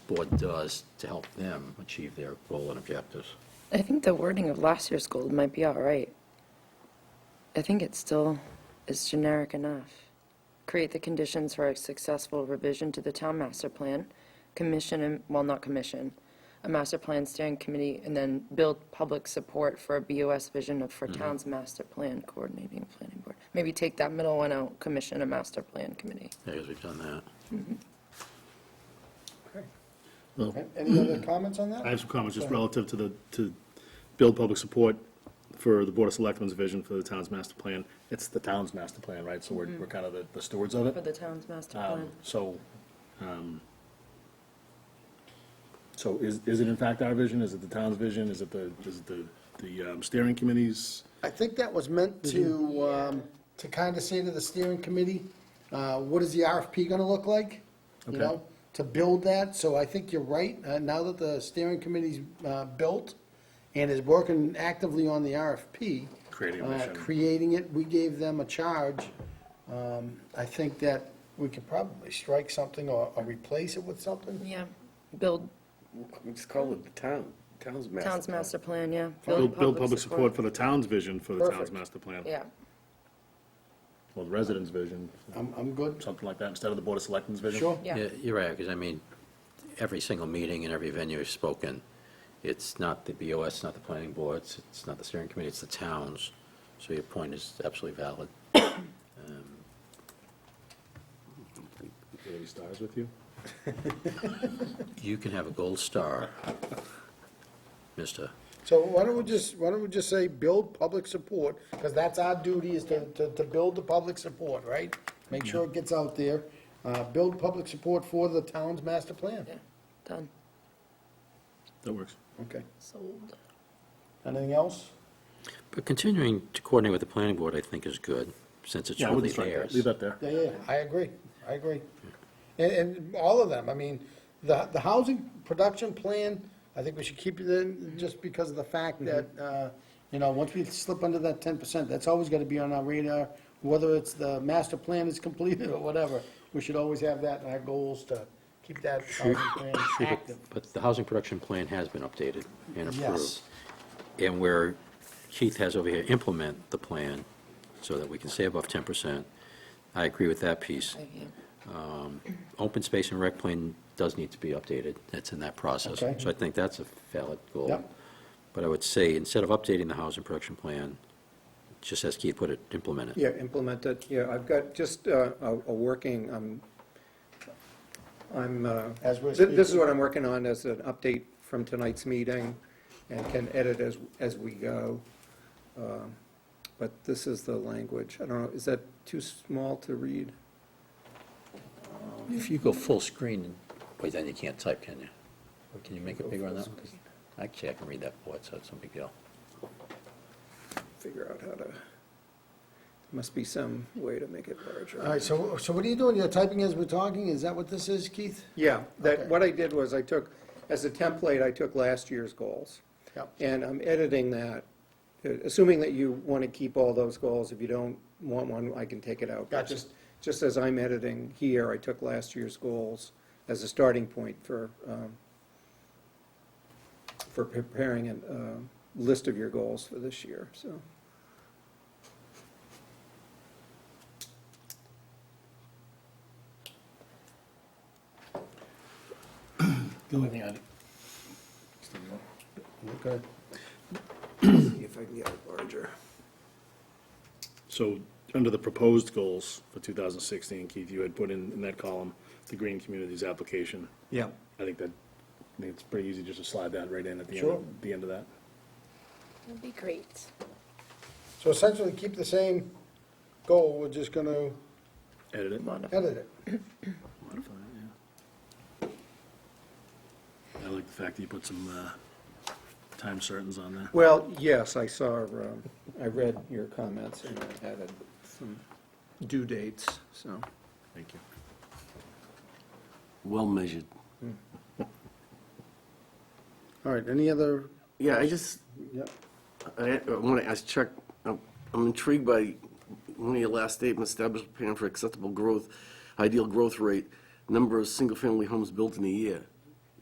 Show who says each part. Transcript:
Speaker 1: board does to help them achieve their goal and objectives.
Speaker 2: I think the wording of last year's goal might be all right. I think it still is generic enough. Create the conditions for a successful revision to the town master plan, commission, and well, not commission, a master plan steering committee, and then build public support for a BOS vision of, for town's master plan coordinating planning board. Maybe take that middle one out, commission a master plan committee.
Speaker 1: Yeah, because we've done that.
Speaker 3: A- Any other comments on that?
Speaker 4: I have some comments just relative to the, to build public support for the Board of Selectmen's vision for the town's master plan. It's the town's master plan, right? So we're, we're kind of the- the stewards of
Speaker 2: For
Speaker 4: it.
Speaker 2: the town's master plan.
Speaker 4: Um, So, um, so is, is it in fact our vision? Is it the town's vision? Is it the, is it the, the um, steering committee's?
Speaker 3: I think that was meant to, um, to kind of say to the steering committee, uh, what is the RFP gonna look like? You
Speaker 4: Okay.
Speaker 3: know, to build that, so I think you're right, uh, now that the steering committee's, uh, built and is working actively on the RFP.
Speaker 4: Creating a
Speaker 3: uh,
Speaker 4: mission.
Speaker 3: Creating it, we gave them a charge, um, I think that we could probably strike something or, or replace it with something.
Speaker 2: Yeah, build
Speaker 5: Just call it the town, town's master.
Speaker 2: town's
Speaker 5: plan.
Speaker 2: master plan, yeah.
Speaker 4: Build, build public support for the town's vision for the town's
Speaker 2: Perfect.
Speaker 4: master plan.
Speaker 2: Yeah.
Speaker 4: Or the residents' vision,
Speaker 3: I'm, I'm good,
Speaker 4: something like that, instead of the Board of Selectmen's vision.
Speaker 3: sure.
Speaker 2: Yeah.
Speaker 1: You're right, because I mean, every single meeting and every venue is spoken. It's not the BOS, it's not the planning board, it's- it's not the steering committee, it's the towns. So your point is absolutely valid. Um,
Speaker 4: Any stars with you?
Speaker 1: You can have a gold star, mister.
Speaker 3: So why don't we just, why don't we just say, build public support, because that's our duty, is to, to, to build the public support, right? Make sure it gets out there, uh, build public support for the town's master plan.
Speaker 2: Yeah, done,
Speaker 4: That works.
Speaker 3: Okay,
Speaker 2: sold.
Speaker 3: anything else?
Speaker 1: But continuing to coordinate with the planning board, I think, is good, since it's
Speaker 4: Yeah, I wouldn't
Speaker 1: really
Speaker 4: strike that,
Speaker 1: theirs.
Speaker 4: leave that there.
Speaker 3: Yeah, yeah, yeah, I agree, I agree. And, and all of them, I mean, the, the housing production plan, I think we should keep it in, just because of the fact that, uh, you know, once we slip under that ten percent, that's always gotta be on our radar, whether it's the master plan is completed or whatever, we should always have that in our goals to keep that housing plan active.
Speaker 1: But the housing production plan has been updated and approved.
Speaker 3: Yes.
Speaker 1: And where Keith has over here, implement the plan so that we can stay above 10%. I agree with that piece. Open space and rec plan does need to be updated. That's in that process.
Speaker 3: Okay.
Speaker 1: So I think that's a valid goal.
Speaker 3: Yep.
Speaker 1: But I would say, instead of updating the housing production plan, just as Keith put it, implement it.
Speaker 5: Yeah, implement it, yeah, I've got just uh, a, a working, um, I'm, uh,
Speaker 3: As we're
Speaker 5: thi- this is
Speaker 3: speaking.
Speaker 5: what I'm working on as an update from tonight's meeting, and can edit as, as we go. Um, But this is the language, I don't know, is that too small to read?
Speaker 1: If you go full screen, wait, then you can't type, can you? Or Can you make it bigger on that one? 'Cause Actually, I can read that board, so it's no big deal.
Speaker 5: Figure out how to, must be some way to make it larger.
Speaker 3: All right, so, so what are you doing, you're typing as we're talking, is that what this is, Keith?
Speaker 5: Yeah,
Speaker 3: Okay.
Speaker 5: that, what I did was I took, as a template, I took last year's goals.
Speaker 3: Yep.
Speaker 5: And I'm editing that, uh, assuming that you want to keep all those goals. If you don't want one, I can take it out. But
Speaker 3: Gotcha.
Speaker 5: just- Just as I'm editing here, I took last year's goals as a starting point for, um, for preparing a list of your goals for this year, so.
Speaker 4: The only thing I,
Speaker 3: Okay.
Speaker 5: See if I can get it larger.
Speaker 4: so, under the proposed goals for 2016, Keith, you had put in, in that column, the green communities application.
Speaker 5: Yeah.
Speaker 4: I think that, I think it's pretty easy just to slide that right in at the end,
Speaker 3: Sure.
Speaker 4: of- the end of that.
Speaker 2: That'd be great.
Speaker 3: So essentially, keep the same goal, we're just gonna
Speaker 4: Edit it.
Speaker 3: edit it.
Speaker 4: Modify it, yeah. I like the fact that you put some, uh, time certains on there.
Speaker 5: Well, yes, I saw, um, I read your comments and I added some due dates, so.
Speaker 4: Thank you.
Speaker 6: Well measured.
Speaker 3: All right, any other,
Speaker 6: Yeah, I just,
Speaker 3: yeah,
Speaker 6: I want to ask Chuck, I'm I'm intrigued by one of your last statements, establish a plan for acceptable growth, ideal growth rate, number of single-family homes built in a year.